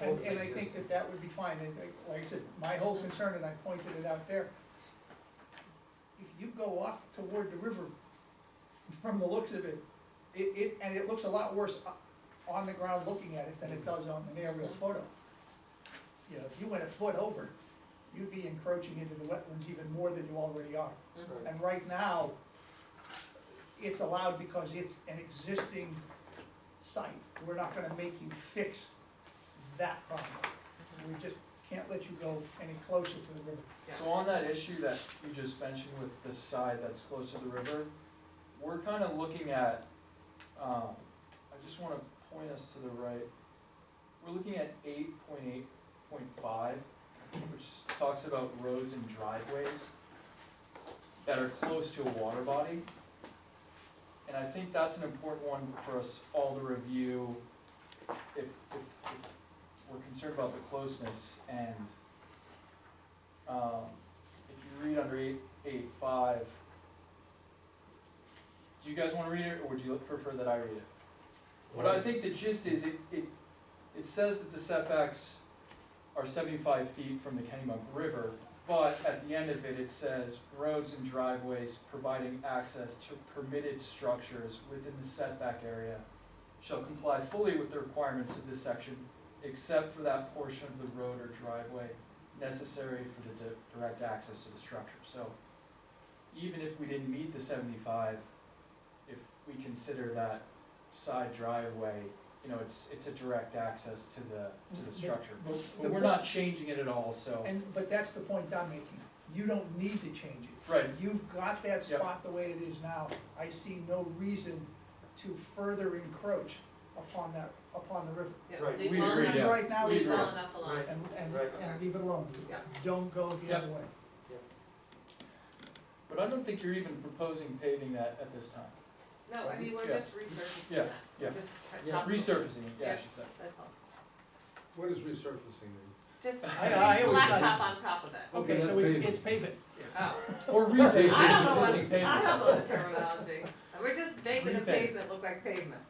And, and I think that that would be fine, and like- like I said, my whole concern, and I pointed it out there, if you go off toward the river, from the looks of it, it, it, and it looks a lot worse o- on the ground looking at it than it does on an aerial photo. You know, if you went a foot over, you'd be encroaching into the wetlands even more than you already are. Right. And right now, it's allowed because it's an existing site. We're not gonna make you fix that problem. We just can't let you go any closer to the river. So on that issue that you just mentioned with the side that's close to the river, we're kind of looking at, um, I just want to point us to the right. We're looking at eight point eight point five, which talks about roads and driveways that are close to a water body. And I think that's an important one for us all to review if, if, if we're concerned about the closeness and um, if you read under eight, eight, five, do you guys wanna read it, or would you prefer that I read it? What I think the gist is, it, it, it says that the setbacks are seventy-five feet from the Kennybunk River, but at the end of it, it says roads and driveways providing access to permitted structures within the setback area shall comply fully with the requirements of this section, except for that portion of the road or driveway necessary for the di- direct access to the structure, so even if we didn't meet the seventy-five, if we consider that side driveway, you know, it's, it's a direct access to the, to The- the structure. But, the but we're po- not changing it at all, so, And, but that's the point I'm making. You don't need to change it. right, You've got that Yep. spot the way it is now. I see no reason to further encroach upon that, upon the river. Yeah, Right, leave we well agree, enough- Because yeah. right now, We it's leave agree. well not. enough alone. Right. And, and, Right, and okay. leave it alone. Yeah. Don't go the other way. but I don't think you're even proposing paving that at this time. No, I mean, we're Yeah. just resurfacing Yeah, that. yeah. Yeah. Resurfacing it, yeah, I should say. That's all. What is resurfacing mean? Just I- I always thought- blacktop on top of that. Okay, Okay, so that's it's, paving. it's paving. Oh. Or repaving I don't know the what, existing pavement. I don't that's know all. the terminology. We're just making the Repave. pavement look like pavement.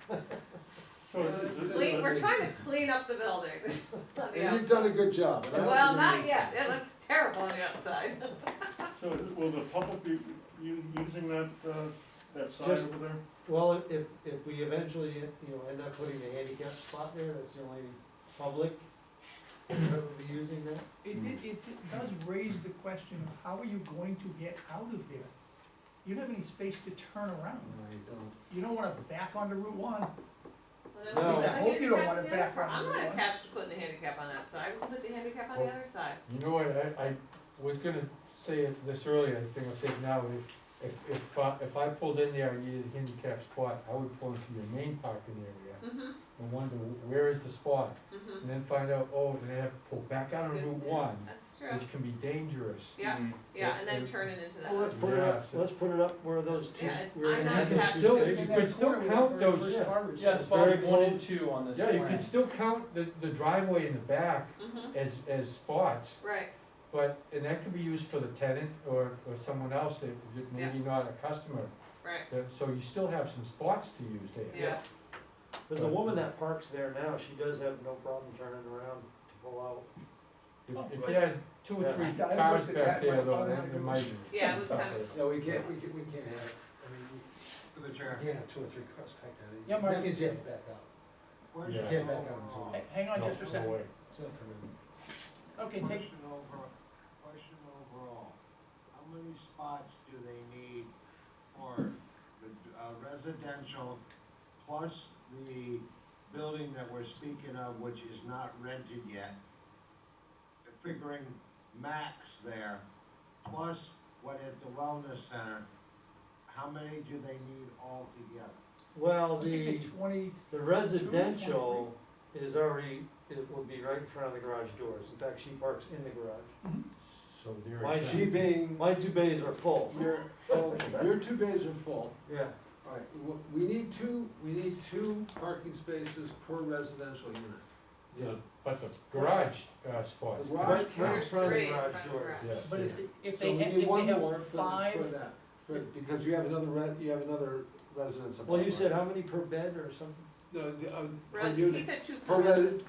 So is- is it- Clean, we're trying to clean up the building. on the And you've outside. done a good job. and I don't Well, think not it's- yet. It looks terrible on the outside. So will the public be u- using that, uh, that side Just- over there? Well, if, if we eventually, you know, end up putting a handicap spot there, that's the only public that would be using that. It, it, it does raise the question of how are you going to get out of there? You don't have any space to turn around. No, you don't. You don't wanna back onto Route one. Well, No. At least then put I the hope you don't want it handicap on the other back part. on I'm the not other one. attached to putting the handicap on that side, we'll put the handicap on the Well- other side. You know what, I, I was gonna say it- this earlier, the thing I'll say it now is, if, if, I- if I pulled in there and needed a handicap spot, I would pull into your main parking area Mm-hmm, and wonder, where is the spot? mm-hmm. And then find out, oh, then I have to pull back out on Route One, That's true, which can be dangerous. yeah, Mm. yeah, and then Yeah. turn it into Well, that. let's put it up, Yeah. let's put it up where those two, Yeah, where I'm the not And you can handicap attached still, And you in sticks. that could still corner where count that very those, first car is. Yeah, spots very one close. and two on this yeah, plan. you can still count the, the driveway in the back Mm-hmm, as, as spots, right, but, and that could be used for the tenant or, or someone else that, that maybe not a customer. right, That- So you still have some spots to use there. yeah, Cause the woman that parks there now, she does have no problem turning around to pull out. If- If you had two or three Oh, Yeah, I cars looked at back that, oh, there but though, I'm then not it gonna- might be. yeah, it was kind of, No, we can't, we can't, we can't have it. I mean, we. The chair. Yeah, two or three cars back there. Yeah, Mark. That means you have to back out. Where's You your- can't back out. so Hey, Hang on No, just a second. no way. it's not permitted. Okay, take, Question over, question overall, how many spots do they need for the uh, residential plus the building that we're speaking of, which is not rented yet? Figuring max there, plus what at the wellness center, how many do they need altogether? Well, I think the, the twenty, the residential is already, it would be right in front of the garage doors, in fact, she parks in the garage. So there Why is is that. She being, My two bays are full, your, okay, your two bays are full. yeah. All right, w- we need two, we need two parking spaces per residential unit. Yeah, But the garage, uh, spots. The garage Right- right in counts. there's front of the three in garage front of the door. garage. Yes. but if, yeah. if So they, we ha- need if one they more for have the- for five, that, for- Because you have another re, you have another residence Well, apartment. you said how many per bed or something? No, the, uh, per Res- he unit, said two per per, resi-